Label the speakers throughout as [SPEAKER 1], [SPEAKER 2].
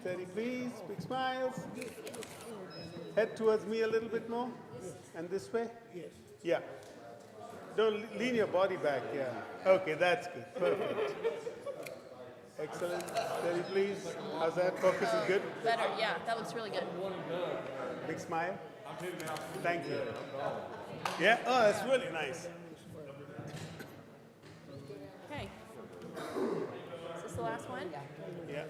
[SPEAKER 1] Steady, please. Big smiles. Head towards me a little bit more. And this way? Yes. Yeah. Don't le- lean your body back. Yeah. Okay, that's good. Perfect. Excellent. Steady, please. How's that? Focus is good.
[SPEAKER 2] Better, yeah. That looks really good.
[SPEAKER 1] Big smile. Thank you. Yeah. Oh, that's really nice.
[SPEAKER 2] Okay. Is this the last one? Yeah.
[SPEAKER 1] Yeah.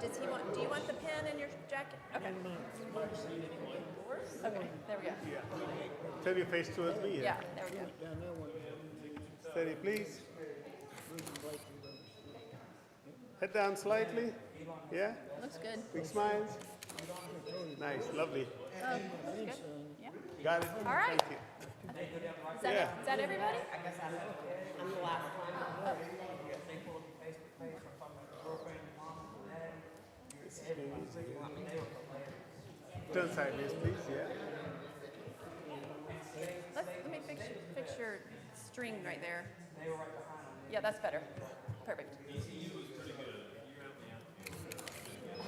[SPEAKER 2] Does he want? Do you want the pen in your jacket? Okay. Okay. There we go.
[SPEAKER 1] Turn your face towards me.
[SPEAKER 2] Yeah. There we go.
[SPEAKER 1] Steady, please. Head down slightly. Yeah.
[SPEAKER 2] Looks good.
[SPEAKER 1] Big smiles. Nice. Lovely.
[SPEAKER 2] Oh, looks good. Yeah.
[SPEAKER 1] Got it.
[SPEAKER 2] All right.
[SPEAKER 1] Thank you.
[SPEAKER 2] Is that,
[SPEAKER 1] Yeah.
[SPEAKER 2] is that everybody?
[SPEAKER 1] Turn sideways, please. Yeah.
[SPEAKER 2] Let, let me fix, fix your string right there. Yeah, that's better. Perfect.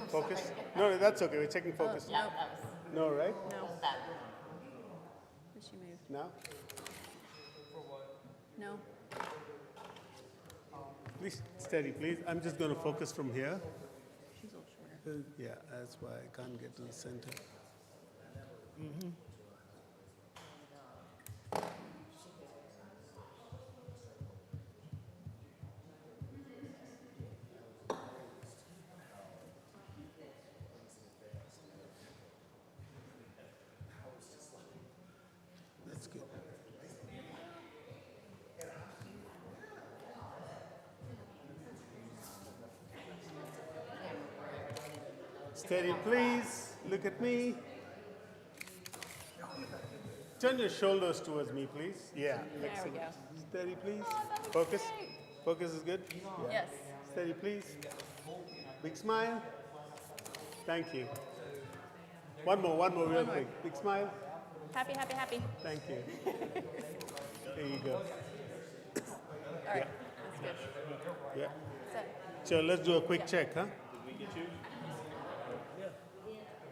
[SPEAKER 1] Focus. No, no, that's okay. We're checking focus.
[SPEAKER 2] Oh, No,
[SPEAKER 1] No, right?
[SPEAKER 2] no. Did she move?
[SPEAKER 1] Now?
[SPEAKER 2] No.
[SPEAKER 1] Please, steady, please. I'm just going to focus from here.
[SPEAKER 2] She's a little shorter.
[SPEAKER 1] Uh, Yeah, that's why I can't get to the center. That's good. Steady, please. Look at me. Turn your shoulders towards me, please. Yeah.
[SPEAKER 2] There we
[SPEAKER 1] excellent.
[SPEAKER 2] go.
[SPEAKER 1] Steady, please.
[SPEAKER 2] that was
[SPEAKER 1] Focus.
[SPEAKER 2] great.
[SPEAKER 1] Focus is good. Yeah.
[SPEAKER 2] Yes.
[SPEAKER 1] Steady, please. Big smile. Thank you. One more, one more, real quick. Big smile.
[SPEAKER 2] Happy, happy, happy.
[SPEAKER 1] Thank you. There you go.
[SPEAKER 2] All right. That's good.
[SPEAKER 1] Yeah.
[SPEAKER 2] So,
[SPEAKER 1] So let's do a quick check, huh?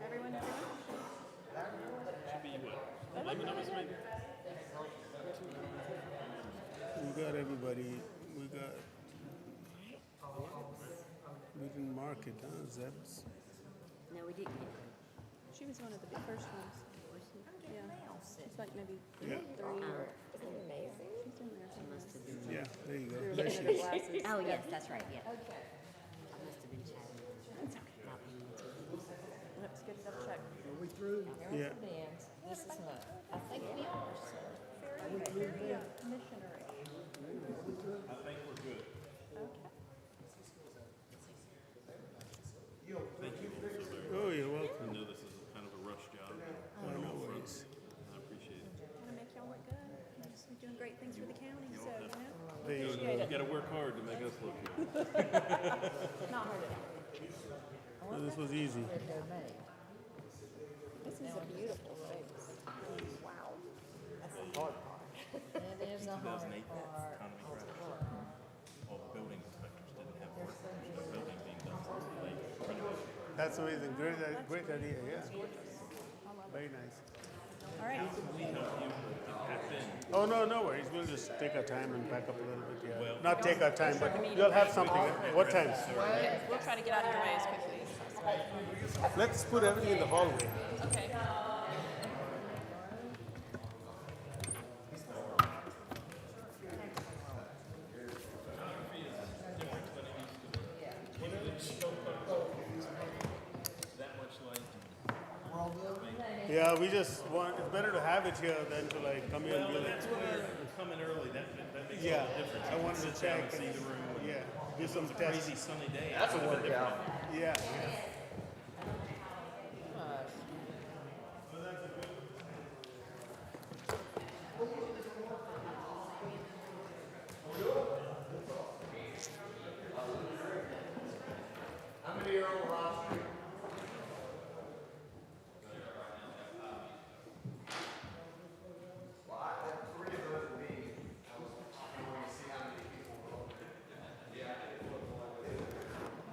[SPEAKER 2] everyone, everyone?
[SPEAKER 1] We got everybody. We got. We didn't mark it, huh? Zebs.
[SPEAKER 3] No, we didn't.
[SPEAKER 2] She was one of the big first ones. Yeah. She's like maybe
[SPEAKER 1] Yeah.
[SPEAKER 2] three
[SPEAKER 3] Um,
[SPEAKER 2] or
[SPEAKER 3] amazing?
[SPEAKER 2] she's in there somewhere.
[SPEAKER 1] Yeah. There you go.
[SPEAKER 2] Looking
[SPEAKER 1] There
[SPEAKER 2] at
[SPEAKER 1] she
[SPEAKER 2] her
[SPEAKER 1] is.
[SPEAKER 2] glasses.
[SPEAKER 3] Oh, yes, that's right, yeah. Okay. I must have been chatting. It's okay. Not paying attention.
[SPEAKER 2] Let's get it up check.
[SPEAKER 1] Yeah.
[SPEAKER 3] This is not, I think we are, so.
[SPEAKER 2] Very, very uh, missionary. I think we're good. Okay.
[SPEAKER 1] Oh, you're welcome.
[SPEAKER 4] know this is a kind of a rush job.
[SPEAKER 1] Oh, no worries.
[SPEAKER 4] I appreciate it.
[SPEAKER 2] Want to make y'all look good. You're just doing great things for the county, so, you know.
[SPEAKER 1] There you go.
[SPEAKER 4] You gotta work hard to make us look good.
[SPEAKER 2] Not hard at all.
[SPEAKER 1] No, this was easy.
[SPEAKER 2] This is a beautiful face. Wow.
[SPEAKER 3] It is a hard
[SPEAKER 4] 2008 economy crash. All the building inspectors didn't have work, the building being done since late renovation.
[SPEAKER 1] That's amazing. Great, i- great idea. Yeah. Very nice.
[SPEAKER 2] All right.
[SPEAKER 1] Oh, no, no worries. We'll just take our time and back up a little bit. Yeah. Not take our time, but you'll have something. What time?
[SPEAKER 2] We'll try to get out of your way as quickly as possible.
[SPEAKER 1] Let's put everything in the hallway.
[SPEAKER 2] Okay.
[SPEAKER 1] Yeah, we just want, it's better to have it here than to like come here and be like.
[SPEAKER 4] Coming early, that, that makes
[SPEAKER 1] Yeah,
[SPEAKER 4] a difference.
[SPEAKER 1] I wanted to check.
[SPEAKER 4] See the room.
[SPEAKER 1] Yeah, do some
[SPEAKER 4] Crazy
[SPEAKER 1] tests.
[SPEAKER 4] sunny day. That's a workout.
[SPEAKER 1] Yeah,